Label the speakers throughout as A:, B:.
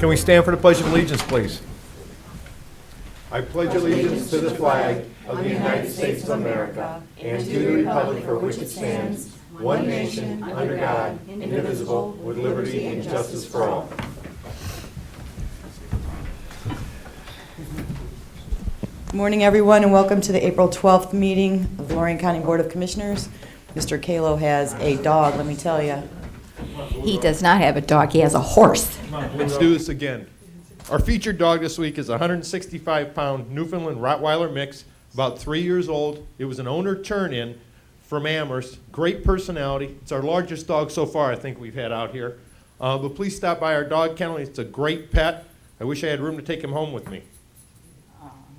A: Can we stand for the Pledge of Allegiance, please?
B: I pledge allegiance to the flag of the United States of America and to the republic for which it stands, one nation, under God, indivisible, with liberty and justice for all.
C: Good Morning, everyone, and welcome to the April 12th meeting of the Lorraine County Board of Commissioners. Mr. Kalo has a dog, let me tell you.
D: He does not have a dog, he has a horse.
B: Let's do this again. Our featured dog this week is a 165-pound Newfoundland Rottweiler mix, about three years old. It was an owner turn-in from Amherst. Great personality. It's our largest dog so far, I think, we've had out here. Uh, But please stop by our dog kennel. It's a great pet. I wish I had room to take him home with me.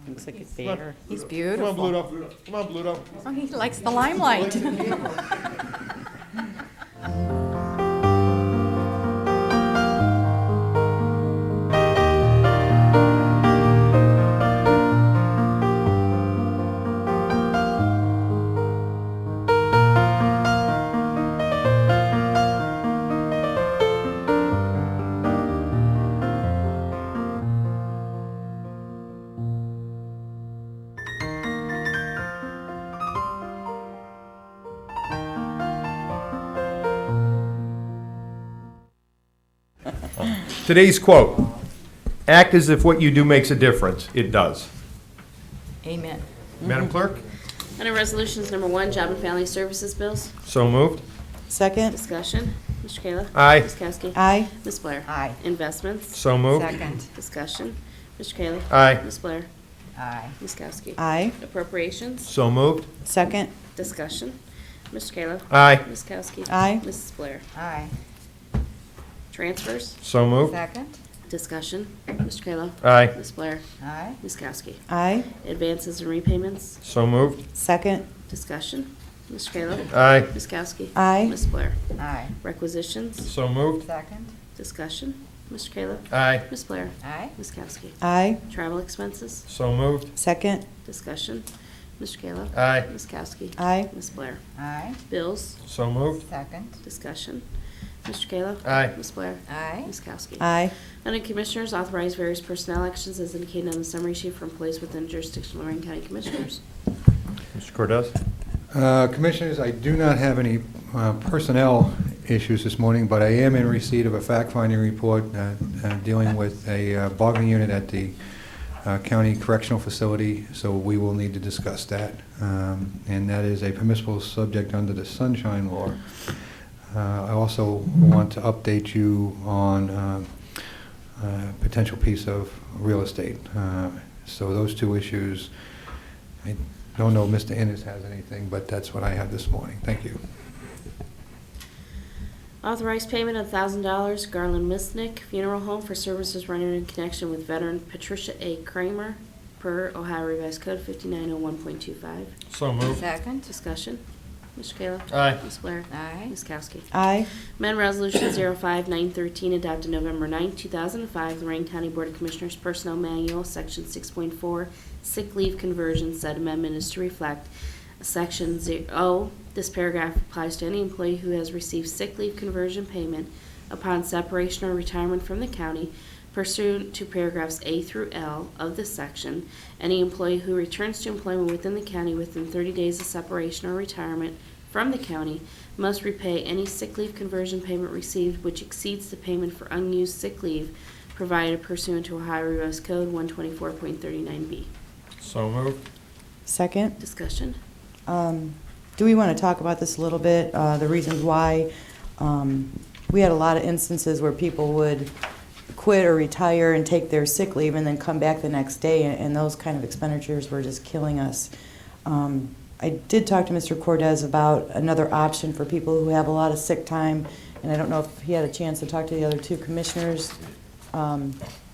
C: Looks like a bear.
D: He's
B: Come on,
D: beautiful.
B: Bluto. Come on, Bluto.
D: Oh, He likes the limelight.
A: Today's quote, "Act as if what you do makes a difference. It does."
D: Amen.
C: Mm-hmm.
A: Madam Clerk?
E: Under Resolutions Number One, Job and Family Services Bills,
A: So moved.
C: Second?
E: discussion. Mr. Kayla?
A: Aye.
E: Ms. Kowski?
C: Aye.
E: Ms. Blair?
D: Aye.
E: Investments,
A: So moved.
D: Second.
E: discussion. Mr. Kayla?
A: Aye.
E: Ms. Blair?
D: Aye.
E: Ms. Kowski?
C: Aye.
E: Appropriations,
A: So moved.
C: Second?
E: discussion. Mr. Kayla?
A: Aye.
E: Ms. Kowski?
C: Aye.
E: Mrs. Blair?
D: Aye.
E: Transfers,
A: So moved.
D: Second.
E: discussion. Mr. Kayla?
A: Aye.
E: Ms. Blair?
D: Aye.
E: Ms. Kowski?
C: Aye.
E: Advances and repayments,
A: So moved.
C: Second?
E: discussion. Mr. Kayla?
A: Aye.
E: Ms. Kowski?
C: Aye.
E: Ms. Blair?
D: Aye.
E: Requisitions,
A: So moved.
D: Second.
E: discussion. Mr. Kayla?
A: Aye.
E: Ms. Blair?
D: Aye.
E: Ms. Kowski?
C: Aye.
E: Travel expenses,
A: So moved.
C: Second?
E: Discussion. Mr. Kayla?
A: Aye.
E: Ms. Kowski?
C: Aye.
E: Ms. Blair?
D: Aye.
E: Bills?
A: So moved.
D: Second.
E: Discussion. Mr. Kayla?
A: Aye.
E: Ms. Blair?
D: Aye.
E: Ms. Kowski?
C: Aye.
E: Under Commissioners, authorize various personnel actions as indicated on the summary sheet for employees within jurisdiction of Lorraine County Commissioners.
A: Mr. Cordez?
F: Uh, Commissioners, I do not have any uh, personnel issues this morning, but I am in receipt of a fact-finding report uh, uh, dealing with a uh, bargaining unit at the uh, county correctional facility, so we will need to discuss that. Um, And that is a permissible subject under the sunshine law. Uh, I also want to update you on uh, uh, potential piece of real estate. Uh, So those two issues, I don't know if Mr. Ennis has anything, but that's what I have this morning. Thank you.
E: Authorize payment of thousand dollars Garland Misnick Funeral Home for services rendered in connection with veteran Patricia A. Kramer per Ohio Revised Code fifty-nine oh one point two five.
A: So moved.
D: Second.
E: Discussion. Mr. Kayla?
A: Aye.
E: Ms. Blair?
D: Aye.
E: Ms. Kowski?
C: Aye.
E: Amendment Resolution 05913, adopted November 9, 2005, Lorraine County Board of Commissioners Personnel Manual, Section 6.4, Sick Leave Conversion. Said amendment is to reflect Section 0. This paragraph applies to any employee who has received sick leave conversion payment upon separation or retirement from the county pursuant to paragraphs A through L of this section. Any employee who returns to employment within the county within 30 days of separation or retirement from the county must repay any sick leave conversion payment received which exceeds the payment for unused sick leave provided pursuant to Ohio Revised Code 124.39B.
A: So moved.
C: Second?
E: Discussion?
C: Um, Do we want to talk about this a little bit, uh, the reasons why? um, We had a lot of instances where people would quit or retire and take their sick leave and then come back the next day, and- and those kind of expenditures were just killing us. Um, I did talk to Mr. Cortez about another option for people who have a lot of sick time, and I don't know if he had a chance to talk to the other two commissioners, um,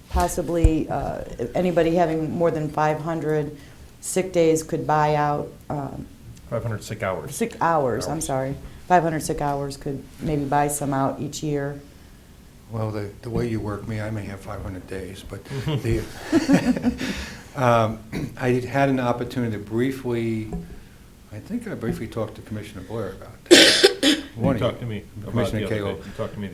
C: possibly uh, anybody having more than 500 sick days could buy out um,
A: 500 sick hours.
C: Sick hours, I'm
A: Hours.
C: sorry. 500 sick hours could maybe buy some out each year.
F: Well, the, the way you work me, I may have 500 days, but the, um, I had had an opportunity to briefly, I think I briefly talked to Commissioner Blair about that.
A: You
F: One of
A: talked to me about
F: Commissioner
A: the other day.
F: Cagle.
A: You talked to me